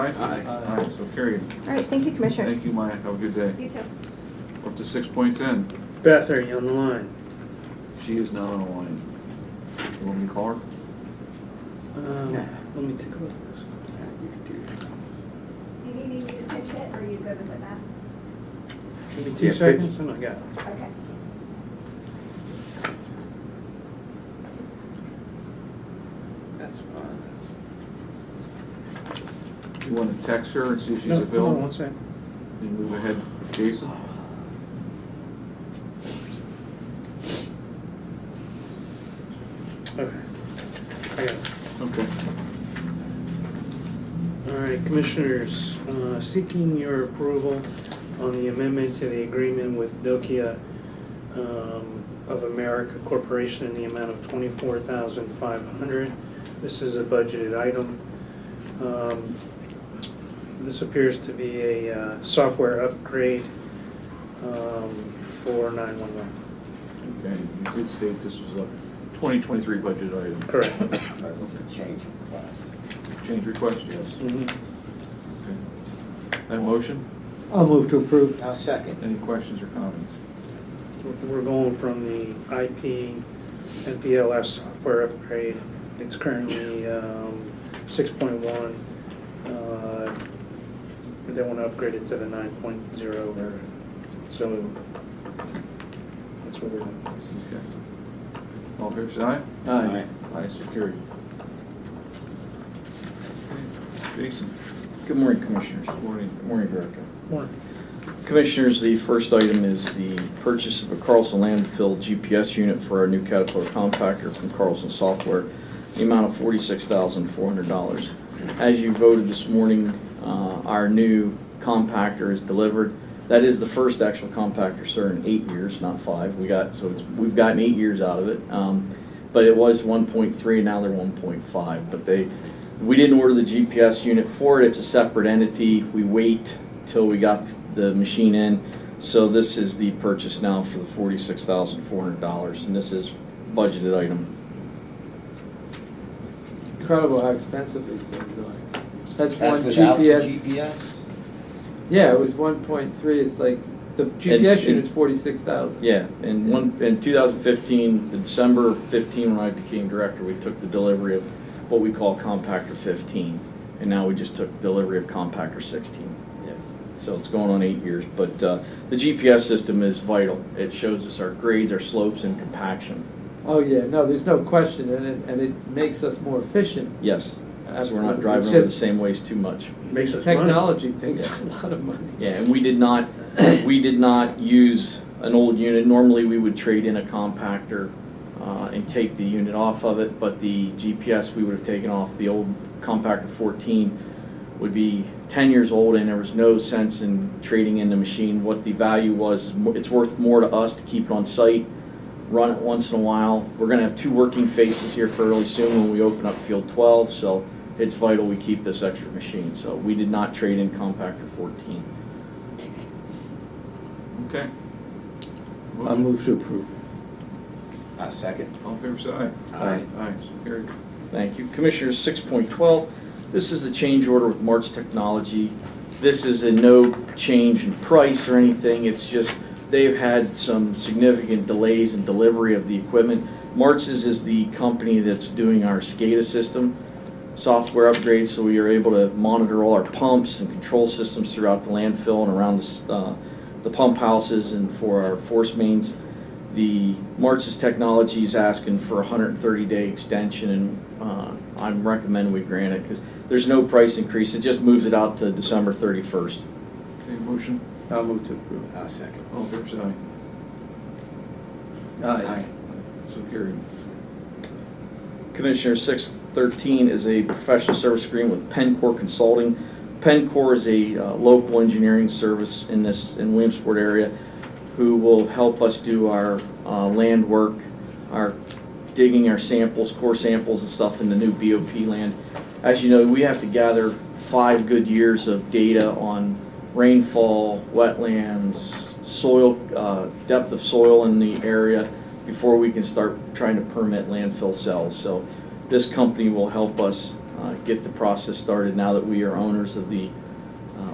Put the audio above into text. Aye. Aye, so carried. All right, thank you, Commissioners. Thank you, Maya, have a good day. You too. Up to six point ten, Beth, are you on the line? she is not on the line. You want me to call her? Um, Nah. Let me take a look. You need me to pinch it, or you good with it, Matt? Give me two Yeah, seconds and I got it. Okay. That's fine. You want to text her and see if she's No, hold on available? one second. Then move ahead, Jason? Okay. I got it. Okay. All right, Commissioners, uh, seeking your approval on the amendment to the agreement with Nokia um, of America Corporation in the amount of $24,500. This is a budgeted item. Um, This appears to be a uh, software upgrade um, for 911. Okay, you did state this was a twenty twenty-three budget item. Correct. Change request. Change request, yes. Mm-hmm. Okay. That motion, I'll move to approve. I'll second. any questions or comments? We're going from the IP NPLS software upgrade. It's currently um, 6.1. uh, They want to upgrade it to the 9.0 version. So that's what we're doing. Okay. All fair side? Aye. Aye, so carried. Okay. Jason? Good morning, Commissioners. Good morning. Good morning, Director. Warren, Commissioners, the first item is the purchase of a Carlson landfill GPS unit for our new Caterpillar compactor from Carlson Software, the amount of $46,400. As you voted this morning, uh, our new compactor is delivered. That is the first actual compactor, sir, in eight years, not five. We got, so it's, we've gotten eight years out of it. Um, But it was 1.3, now they're 1.5. But they, we didn't order the GPS unit for it, it's a separate entity. We wait till we got the machine in. So this is the purchase now for the forty-six thousand four hundred dollars, and this is budgeted item. Incredible how expensive these things are. That's one That's without the GPS. GPS? Yeah, it was one point three, it's like, the GPS and- unit's forty-six thousand. Yeah, in one, in two thousand fifteen, the December fifteen, when I became director, we took the delivery of what we call compactor fifteen. And now we just took delivery of compactor sixteen. So it's going on eight years, but, uh, the GPS system is vital. It shows us our grades, our slopes, and compaction. Oh, yeah, no, there's no question, and it, and it makes us more efficient. Yes, so we're Absolutely. not driving It's over the just- same ways too much. Makes us money. Technology takes a lot of money. Yeah, and we did not, we did not use an old unit. Normally, we would trade in a compactor uh, and take the unit off of it, but the GPS we would have taken off, the old compactor 14 would be 10 years old, and there was no sense in trading in the machine. What the value was, is mo- it's worth more to us to keep it on site, run it once in a while. We're gonna have two working faces here fairly soon when we open up Field 12, so it's vital we keep this extra machine. So we did not trade in compactor 14. Okay. I move to approve. I'll second. All in favor, say aye. Aye. Aye, so carried. Thank you. Commissioners, six point twelve, this is the change order with March Technology. This is a no change in price or anything, it's just, they've had some significant delays in delivery of the equipment. March's is the company that's doing our SCADA system, software upgrades, so we are able to monitor all our pumps and control systems throughout the landfill and around the, s- uh, the pump houses and for our force mains the March's Technology is asking for a 130-day extension, and uh, I'm recommending we grant it, because there's no price increase, it just moves it out to December 31st. Okay, motion, I'll move to approve. I'll second. all in favor, say aye. Aye. So carried. Commissioner 613 is a professional service agreement with Pencor Consulting. Pencor is a uh, local engineering service in this, in Williamsport area, who will help us do our uh, land work, our digging our samples, core samples and stuff in the new BOP land. As you know, we have to gather five good years of data on rainfall, wetlands, soil, uh, depth of soil in the area before we can start trying to permit landfill cells. So this company will help us uh, get the process started now that we are owners of the